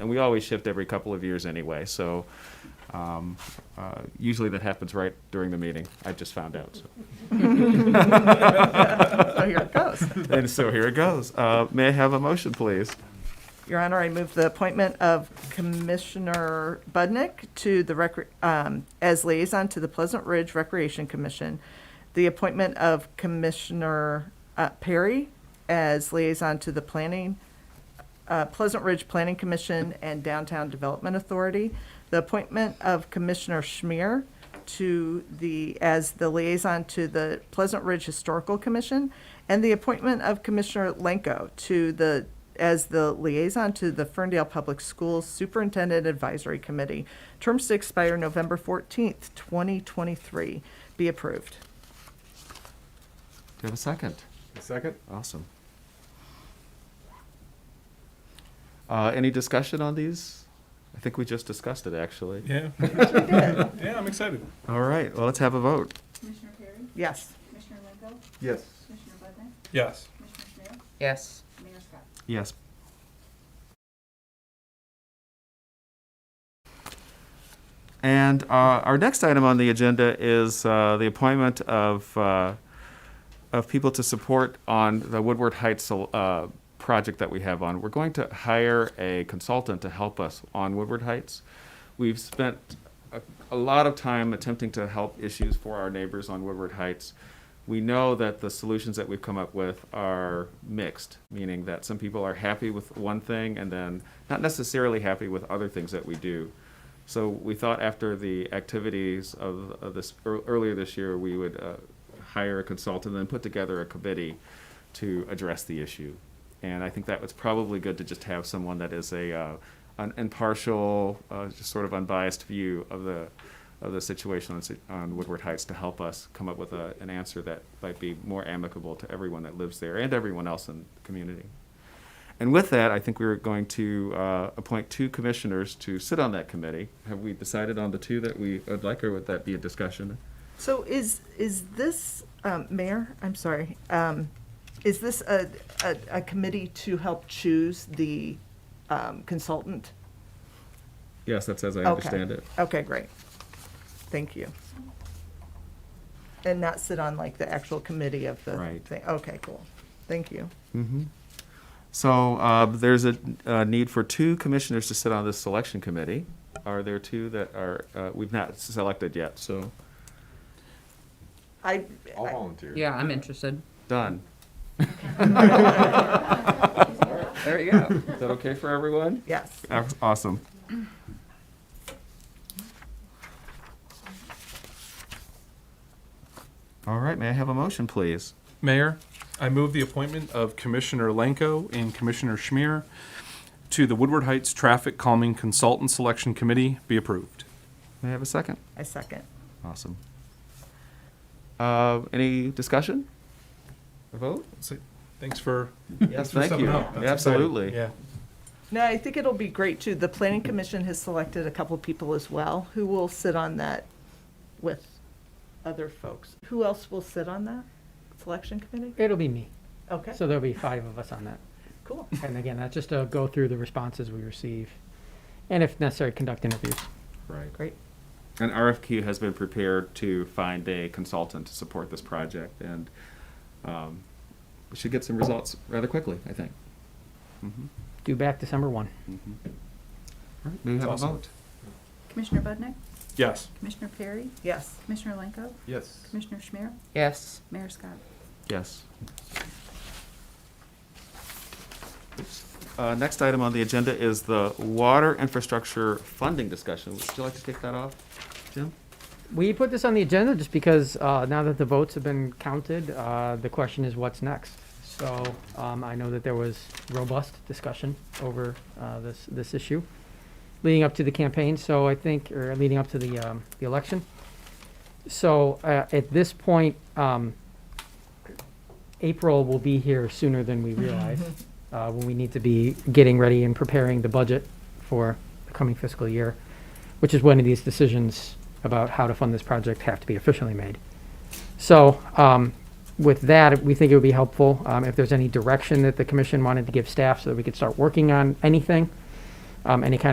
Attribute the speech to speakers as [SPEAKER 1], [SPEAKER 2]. [SPEAKER 1] and we always shift every couple of years anyway, so um, uh, usually that happens right during the meeting. I just found out, so.
[SPEAKER 2] So here it goes.
[SPEAKER 1] And so here it goes. Uh, May I have a motion, please?
[SPEAKER 2] Your Honor, I move the appointment of Commissioner Budnick to the, recre- um, as liaison to the Pleasant Ridge Recreation Commission, the appointment of Commissioner uh, Perry as liaison to the Planning, uh, Pleasant Ridge Planning Commission and Downtown Development Authority, the appointment of Commissioner Schmier to the, as the liaison to the Pleasant Ridge Historical Commission, and the appointment of Commissioner Lenko to the, as the liaison to the Ferndale Public Schools Superintendent Advisory Committee. Terms to expire November 14th, 2023. Be approved.
[SPEAKER 1] Do you have a second?
[SPEAKER 3] Second?
[SPEAKER 1] Awesome. Uh, Any discussion on these? I think we just discussed it, actually.
[SPEAKER 3] Yeah. Yeah, I'm excited.
[SPEAKER 1] All right, well, let's have a vote.
[SPEAKER 4] Commissioner Perry?
[SPEAKER 2] Yes.
[SPEAKER 4] Commissioner Lenko?
[SPEAKER 3] Yes.
[SPEAKER 4] Commissioner Budnick?
[SPEAKER 3] Yes.
[SPEAKER 4] Commissioner Schmidt?
[SPEAKER 5] yes.
[SPEAKER 4] Mayor Scott?
[SPEAKER 1] Yes. And uh, our next item on the agenda is uh, the appointment of, uh, of people to support on the Woodward Heights uh, project that we have on. We're going to hire a consultant to help us on Woodward Heights. We've spent a, a lot of time attempting to help issues for our neighbors on Woodward Heights. We know that the solutions that we've come up with are mixed, meaning that some people are happy with one thing and then not necessarily happy with other things that we do. So we thought after the activities of, of this ear- earlier this year, we would uh, hire a consultant and then put together a committee to address the issue. And I think that was probably good to just have someone that is a uh, an impartial, uh, just sort of unbiased view of the of the situation on, si- on Woodward Heights to help us come up with a, an answer that might be more amicable to everyone that lives there and everyone else in the community. And with that, I think we're going to uh, appoint two commissioners to sit on that committee. Have we decided on the two that we would like, or would that be a discussion?
[SPEAKER 2] So is, is this, um, Mayor, I'm sorry, um, is this a, a, a committee to help choose the um, consultant?
[SPEAKER 1] Yes, that's as I
[SPEAKER 2] Okay.
[SPEAKER 1] understand it.
[SPEAKER 2] Okay, great. Thank you. And not sit on like the actual committee of the
[SPEAKER 1] Right.
[SPEAKER 2] thing. Okay, cool. Thank you.
[SPEAKER 1] So uh, there's a uh, need for two commissioners to sit on this selection committee. Are there two that are, uh, we've not selected yet, so
[SPEAKER 2] I,
[SPEAKER 3] I'll
[SPEAKER 2] I-
[SPEAKER 3] volunteer.
[SPEAKER 5] Yeah, I'm interested.
[SPEAKER 1] done.
[SPEAKER 5] There you go.
[SPEAKER 1] Is that okay for everyone?
[SPEAKER 2] yes.
[SPEAKER 1] Aw- Awesome. All right, may I have a motion, please?
[SPEAKER 3] Mayor, I move the appointment of Commissioner Lenko and Commissioner Schmier to the Woodward Heights Traffic Calming Consultant Selection Committee be approved.
[SPEAKER 1] May I have a second?
[SPEAKER 2] I second.
[SPEAKER 1] Awesome. Uh, any discussion? A vote?
[SPEAKER 3] So, Thanks for.
[SPEAKER 1] Yes,
[SPEAKER 3] thanks for
[SPEAKER 1] thank
[SPEAKER 3] stepping
[SPEAKER 1] you.
[SPEAKER 3] up. That's exciting.
[SPEAKER 1] Absolutely.
[SPEAKER 3] Yeah.
[SPEAKER 2] No, I think it'll be great too. The planning commission has selected a couple people as well who will sit on that with other folks. Who else will sit on that selection committee?
[SPEAKER 6] It'll be me.
[SPEAKER 2] Okay,
[SPEAKER 6] So there'll be five of us on that.
[SPEAKER 2] cool.
[SPEAKER 6] And again, that's just to go through the responses we receive and if necessary, conduct interviews.
[SPEAKER 1] Right.
[SPEAKER 2] Great.
[SPEAKER 1] An RFQ has been prepared to find a consultant to support this project, and um, we should get some results rather quickly, I think.
[SPEAKER 3] Mm-hmm.
[SPEAKER 6] Due back December 1.
[SPEAKER 1] All right, may we have a
[SPEAKER 3] Awesome.
[SPEAKER 1] vote?
[SPEAKER 4] Commissioner Budnick?
[SPEAKER 3] Yes.
[SPEAKER 4] Commissioner Perry?
[SPEAKER 2] Yes.
[SPEAKER 4] Commissioner Lenko?
[SPEAKER 3] Yes.
[SPEAKER 4] Commissioner Schmier?
[SPEAKER 5] Yes.
[SPEAKER 4] Mayor Scott?
[SPEAKER 1] Yes. Uh, next item on the agenda is the water infrastructure funding discussion. Would you like to kick that off, Jim?
[SPEAKER 6] We put this on the agenda just because uh, now that the votes have been counted, uh, the question is what's next. So um, I know that there was robust discussion over uh, this this issue leading up to the campaign. So I think, or leading up to the um, the election. So uh, at this point, um, April will be here sooner than
[SPEAKER 2] Mm-hmm.
[SPEAKER 6] we realize uh, when we need to be getting ready and preparing the budget for the coming fiscal year which is when these decisions about how to fund this project have to be officially made. So um, with that, we think it would be helpful um, if there's any direction that the commission wanted to give staff so that we could start working on anything. um, any kind of